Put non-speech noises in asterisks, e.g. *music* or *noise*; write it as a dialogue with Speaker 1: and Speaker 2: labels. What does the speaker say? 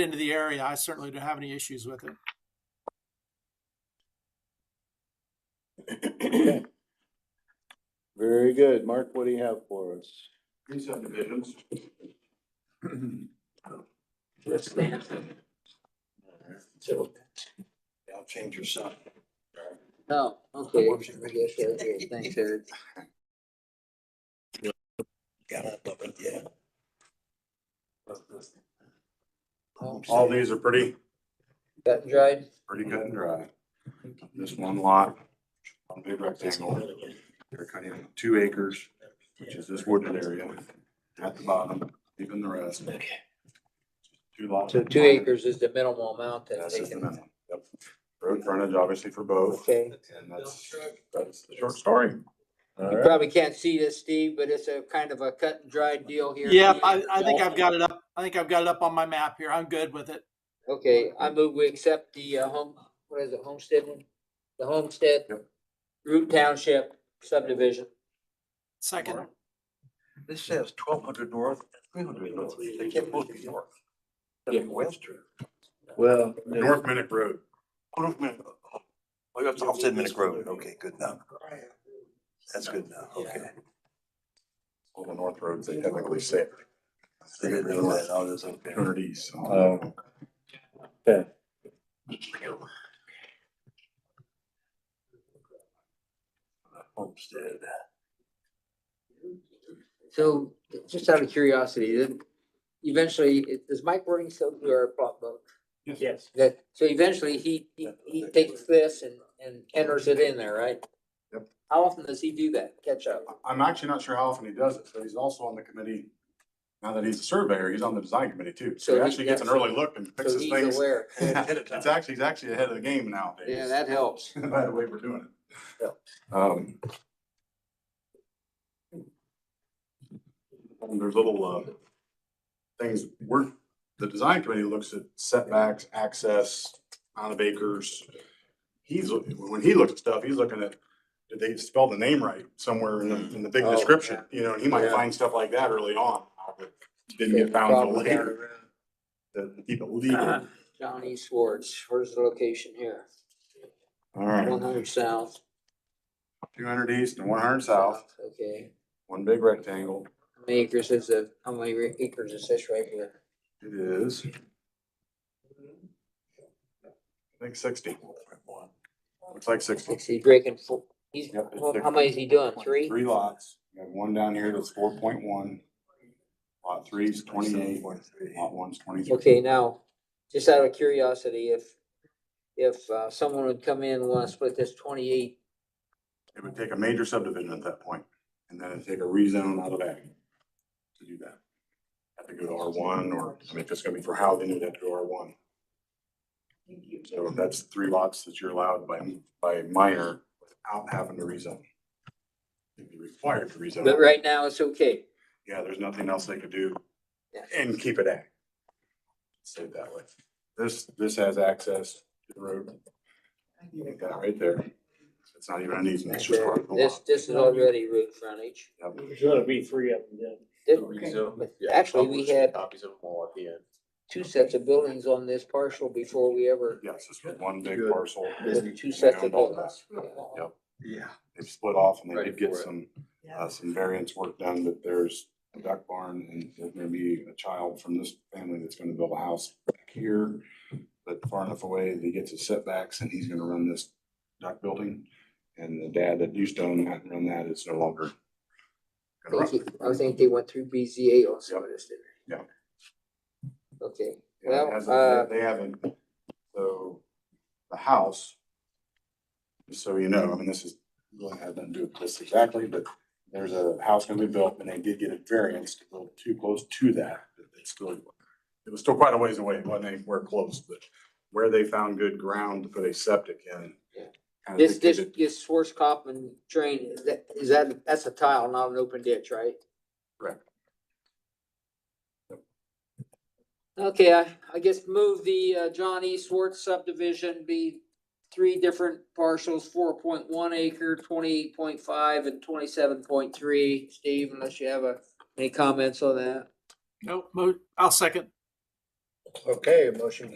Speaker 1: into the area, I certainly don't have any issues with it.
Speaker 2: Okay. Very good. Mark, what do you have for us?
Speaker 3: These subdivisions. I'll change your sign.
Speaker 4: Oh, okay. Yes, okay,
Speaker 1: *laughs*
Speaker 4: Thanks, Eric.
Speaker 3: Gotta love it, yeah.
Speaker 5: All these are pretty,
Speaker 4: Got dried.
Speaker 5: pretty cut and dry. This one lot, one big rectangle, they're cutting two acres, which is this wooded area at the bottom, even the rest. Two lots.
Speaker 4: So two acres is the minimal amount that
Speaker 5: That's
Speaker 4: they
Speaker 5: just the
Speaker 4: can.
Speaker 5: minimum. Yep. Road frontage obviously for both,
Speaker 4: Okay.
Speaker 5: and that's, that's the short story.
Speaker 2: All
Speaker 4: You
Speaker 2: right.
Speaker 4: probably can't see this, Steve, but it's a kind of a cut and dried deal here.
Speaker 1: Yeah, I, I think I've got it up. I think I've got it up on my map here. I'm good with it.
Speaker 4: Okay, I move we accept the uh, home, what is it, homestead one? The homestead.
Speaker 5: Yep.
Speaker 4: Root Township subdivision.
Speaker 1: Second,
Speaker 3: This says twelve hundred north, three hundred north. They can't both be north. That's western.
Speaker 2: Well,
Speaker 5: North Minnick Road.
Speaker 3: Oh, no, man. Oh, that's off Ten Minute Road. Okay, good now. That's good now, okay.
Speaker 5: All the north roads, they technically say
Speaker 3: They didn't realize
Speaker 5: oh,
Speaker 3: all this up there.
Speaker 5: two hundred east.
Speaker 2: Oh.
Speaker 3: Homestead.
Speaker 4: So just out of curiosity, then eventually, it- does Mike Wording still uh, do our plot book?
Speaker 2: Yes.
Speaker 4: That, so eventually he, he, he takes this and, and enters it in there, right?
Speaker 5: Yep.
Speaker 4: How often does he do that, catch up?
Speaker 5: I'm actually not sure how often he does it, but he's also on the committee. Now that he's a surveyor, he's on the design committee too, so he
Speaker 4: So he-
Speaker 5: actually gets an
Speaker 4: yeah, so-
Speaker 5: early look and
Speaker 4: So
Speaker 5: fixes
Speaker 4: he's
Speaker 5: things. *laughs*
Speaker 4: aware,
Speaker 5: It's actually, he's actually ahead of the game nowadays.
Speaker 4: yeah, that helps.
Speaker 5: *laughs* By the way, we're doing
Speaker 4: Yeah.
Speaker 5: it. Um. and There's little, uh, things, we're, the design committee looks at setbacks, access, amount of acres. He's, looking- when he looks at stuff, he's looking at, did they spell the name right somewhere in the, in the big
Speaker 4: Oh,
Speaker 5: description? You know, and he might
Speaker 4: Yeah.
Speaker 5: find stuff like that early on, but didn't get found till
Speaker 4: Problem down the
Speaker 5: later,
Speaker 4: road.
Speaker 5: to keep it
Speaker 4: Uh-huh.
Speaker 5: legal.
Speaker 4: *clears throat* Johnny Swartz, where's the location here?
Speaker 5: All
Speaker 4: One
Speaker 5: right,
Speaker 4: hundred south.
Speaker 5: two hundred east and one hundred south,
Speaker 4: Okay,
Speaker 5: one big rectangle.
Speaker 4: how many acres is it, how many acres is this right here?
Speaker 5: It is. I think sixty. Looks like sixty.
Speaker 4: He's breaking four, he's,
Speaker 5: Yep, it's
Speaker 4: well, how
Speaker 5: different.
Speaker 4: many is he doing, three?
Speaker 5: Three lots. You have one down here that's four point one. Lot three is twenty-eight, lot one's twenty-three.
Speaker 4: Okay, now, just out of curiosity, if, if uh, someone would come in and want to split this twenty-eight,
Speaker 5: It would take a major subdivision at that point, and then it'd take a rezone out of that to do that. Have to go to R one, or, I mean, if it's gonna be for housing, you'd have to go R one. So if that's three lots that you're allowed by, by minor without having to rezone. You'd be required to rezone.
Speaker 4: but right now it's okay.
Speaker 5: Yeah, there's nothing else they could do
Speaker 4: Yeah.
Speaker 5: and keep it at. Say it that way. This, this has access to the road. Like that right there. It's not even an easement, it's just part of the
Speaker 4: This,
Speaker 5: lot.
Speaker 4: this is already road frontage.
Speaker 6: There's gonna be three of them then.
Speaker 4: But Actually, we had
Speaker 7: Copies of them all at the end.
Speaker 4: two sets of buildings on this parcel before we ever,
Speaker 5: Yes, this was one big
Speaker 7: Good.
Speaker 5: parcel.
Speaker 4: with two sets of buildings.
Speaker 7: Yeah.
Speaker 5: They've split off and they
Speaker 7: Ready
Speaker 5: did get
Speaker 7: for it.
Speaker 5: some, uh, some variance work done, but there's a duck barn and there's gonna be a child from this family that's gonna build a house back here. But far enough away, that he gets his setbacks and he's gonna run this duck building. And the dad that used to own that and run that is no longer. gonna
Speaker 4: I
Speaker 5: run
Speaker 4: think,
Speaker 5: it.
Speaker 4: I think they went through BZA on some of this, didn't they?
Speaker 5: Yeah.
Speaker 4: Okay,
Speaker 5: Yeah,
Speaker 4: Well,
Speaker 5: it hasn't-
Speaker 4: uh,
Speaker 5: They haven't, so the house. just So you know, I mean, this is, really had nothing to do with this exactly, but there's a house gonna be built and they did get a variance to build too close to that. but It's still, it was still quite a ways away, when they were close, but where they found good ground to put a septic in.
Speaker 4: Yeah.
Speaker 5: kinda
Speaker 4: this, this,
Speaker 5: dictated-
Speaker 4: this Schwarzkopf drain, is that, is that, that's a tile, not an open ditch, right?
Speaker 5: Correct.
Speaker 4: Okay, I, I guess move the uh, John E. Swartz subdivision be three different parcels, four point one acre, twenty-eight point five and twenty-seven point three. Steve, unless you have a, any comments on that?
Speaker 1: no, mo- I'll second.
Speaker 3: Okay, motion